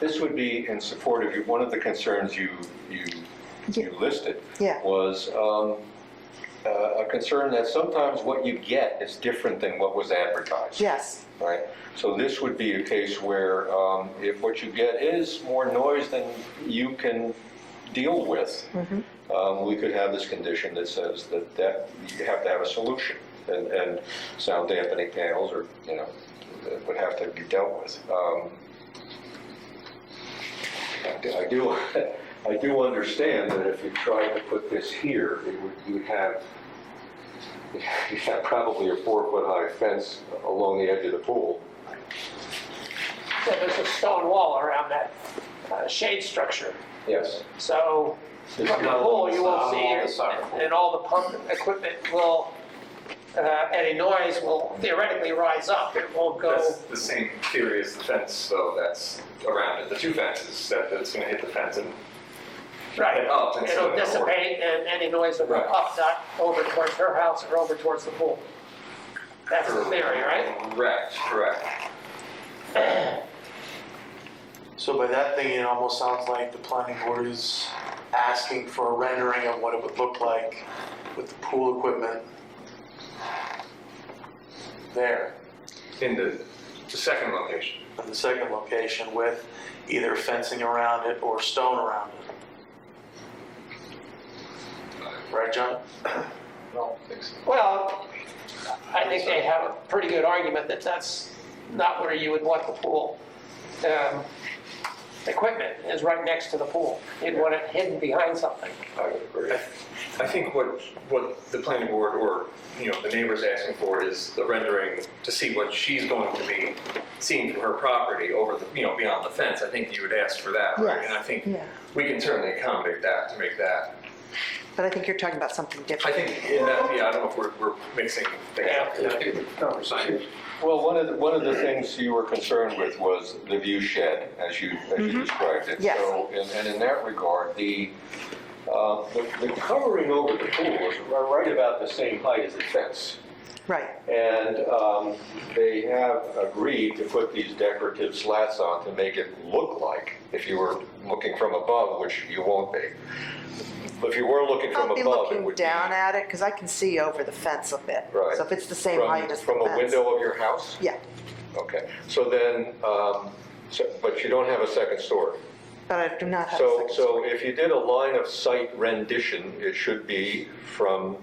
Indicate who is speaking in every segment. Speaker 1: This would be in support of, you- one of the concerns you, you, you listed.
Speaker 2: Yeah.
Speaker 1: Was um, uh, a concern that sometimes what you get is different than what was advertised.
Speaker 2: Yes,
Speaker 1: Right? So this would be a case where um, if what you get is more noise than you can deal with, um, we could have this condition that says that, that you have to have a solution. And, and sound dampening panels or, you know, that would have to be dealt with. Um, I do- I do, I do understand that if you tried to put this here, it would, you'd have, you'd have probably a four-foot-high fence along the edge of the pool.
Speaker 3: So there's a stone wall around that uh, shade structure.
Speaker 1: Yes.
Speaker 3: So from
Speaker 1: There's
Speaker 3: the
Speaker 1: no-
Speaker 3: pool, you
Speaker 4: it's
Speaker 3: will
Speaker 4: not
Speaker 3: see,
Speaker 4: all the summer
Speaker 3: and- and all the pump equipment will, uh, any noise will theoretically rise up. It won't go,
Speaker 4: That's the same theory as the fence, though, that's around it, the two fences, that it's gonna hit the fence and.
Speaker 3: right,
Speaker 4: and up instead
Speaker 3: it'll
Speaker 4: of over.
Speaker 3: dissipate and any noise will go
Speaker 4: Right.
Speaker 3: up, not over towards her house or over towards the pool. That's the theory, right?
Speaker 4: Correct, correct.
Speaker 5: So by that thing, it almost sounds like the planning board is asking for a rendering of what it would look like with the pool equipment there,
Speaker 4: In the, the second location.
Speaker 5: in the second location with either fencing around it or stone around it. Right, John?
Speaker 3: Well, I think they have a pretty good argument that that's not where you would want the pool. um, Equipment is right next to the pool. You'd want it hidden behind something.
Speaker 1: I would agree.
Speaker 4: I think what, what the planning board or, you know, the neighbor's asking for is the rendering to see what she's going to be seeing from her property over the, you know, beyond the fence. I think you would ask for that, right?
Speaker 2: Yes,
Speaker 4: And I think
Speaker 2: yeah.
Speaker 4: we can certainly accommodate that to make that.
Speaker 2: but I think you're talking about something
Speaker 4: I
Speaker 2: different.
Speaker 4: think in that, yeah, I don't know if we're, we're mixing things up.
Speaker 3: Yeah.
Speaker 1: Well, one of, the- one of the things you were concerned with was the view shed, as you, as you described it.
Speaker 2: Mm-hmm. Yes.
Speaker 1: So, and- And in that regard, the, uh, the the covering over the pool is right about the same height as the fence.
Speaker 2: Right,
Speaker 1: And um, they have agreed to put these decorative slats on to make it look like, if you were looking from above, which you won't be. If you were looking from
Speaker 2: I'll be
Speaker 1: above, it
Speaker 2: looking
Speaker 1: would be.
Speaker 2: down at it, because I can see over the fence a bit.
Speaker 1: Right.
Speaker 2: So if it's the same
Speaker 1: from-
Speaker 2: height as the fence.
Speaker 1: From a window of your house?
Speaker 2: Yeah,
Speaker 1: Okay, so then, um, so- but you don't have a second story.
Speaker 2: but I do not have a
Speaker 1: So,
Speaker 2: second story.
Speaker 1: so if you did a line of sight rendition, it should be from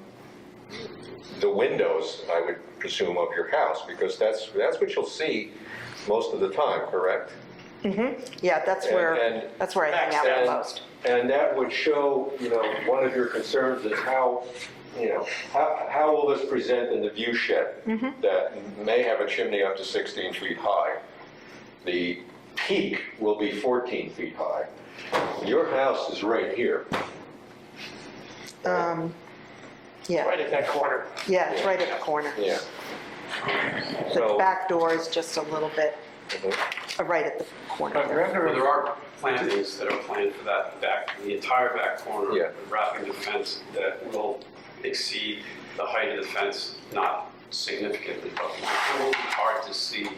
Speaker 1: the windows, I would presume, of your house, because that's, that's what you'll see most of the time, correct?
Speaker 2: Yeah, that's
Speaker 1: and-
Speaker 2: where,
Speaker 1: and-
Speaker 2: that's where I hang out
Speaker 1: And-
Speaker 2: the most.
Speaker 1: And that would show, you know, one of your concerns is how, you know, how, how will this present in the view shed?
Speaker 2: Mm-hmm.
Speaker 1: That may have a chimney up to 16 feet high. The peak will be 14 feet high. Your house is right here.
Speaker 2: Um, Yeah,
Speaker 3: Right at that corner.
Speaker 2: yeah, it's right at the corner.
Speaker 1: Yeah.
Speaker 2: The
Speaker 1: So-
Speaker 2: back door is just a little bit,
Speaker 1: Mhm.
Speaker 2: uh, right at the corner
Speaker 6: But
Speaker 2: there.
Speaker 6: remember, there are plantings that are planned for that back, the entire back corner.
Speaker 1: Yeah.
Speaker 6: Wrapping the fence that will exceed the height of the fence, not significantly, but it will be hard to see,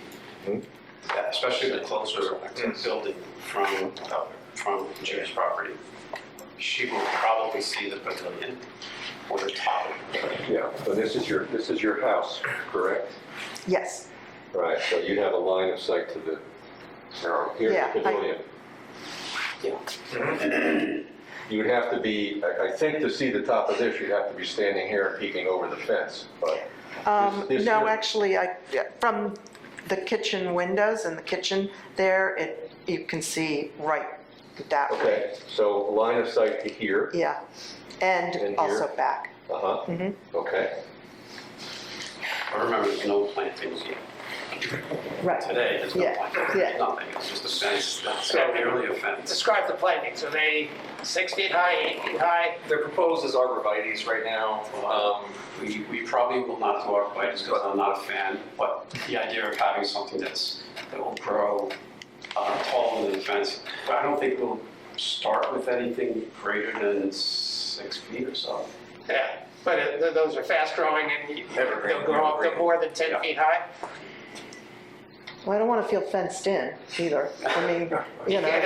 Speaker 6: that, especially the closer building from, uh, from Jim's property. She will probably see the pavilion or the top of the pavilion.
Speaker 1: Yeah, so this is your, this is your house, correct?
Speaker 2: Yes,
Speaker 1: Right, so you have a line of sight to the, here's
Speaker 2: Yeah, I-
Speaker 1: the pavilion. You would have to be, I, I think to see the top of this, you'd have to be standing here and peeking over the fence, but.
Speaker 2: Um,
Speaker 1: this- this
Speaker 2: no,
Speaker 1: here-
Speaker 2: actually, I, from the kitchen windows and the kitchen there, it, you can see right that way.
Speaker 1: Okay, so line of sight to here.
Speaker 2: Yeah,
Speaker 1: And
Speaker 2: and
Speaker 1: here.
Speaker 2: also back.
Speaker 1: Uh-huh,
Speaker 2: Mm-hmm.
Speaker 1: okay.
Speaker 6: But remember, there's no plantings yet.
Speaker 2: Right.
Speaker 6: Today, there's no
Speaker 2: Yeah,
Speaker 6: plantings,
Speaker 2: yeah.
Speaker 6: there's nothing, it's just a fence, it's barely a fence.
Speaker 3: Describe the plantings. Are they six feet high, eight feet high?
Speaker 4: They're proposed as arborvitae's right now. Um,
Speaker 6: We, we probably will not do arborvitae's because I'm not a fan, but the idea of having something that's, that will grow uh, taller than the fence, but I don't think we'll start with anything greater than six feet or so.
Speaker 3: Yeah, but it- th- those are fast growing and you-
Speaker 4: Evergreen,
Speaker 3: they'll grow up to
Speaker 4: evergreen.
Speaker 3: more than 10
Speaker 6: Yeah.
Speaker 3: feet high.
Speaker 2: Well, I don't want to feel fenced in either. I mean, you know.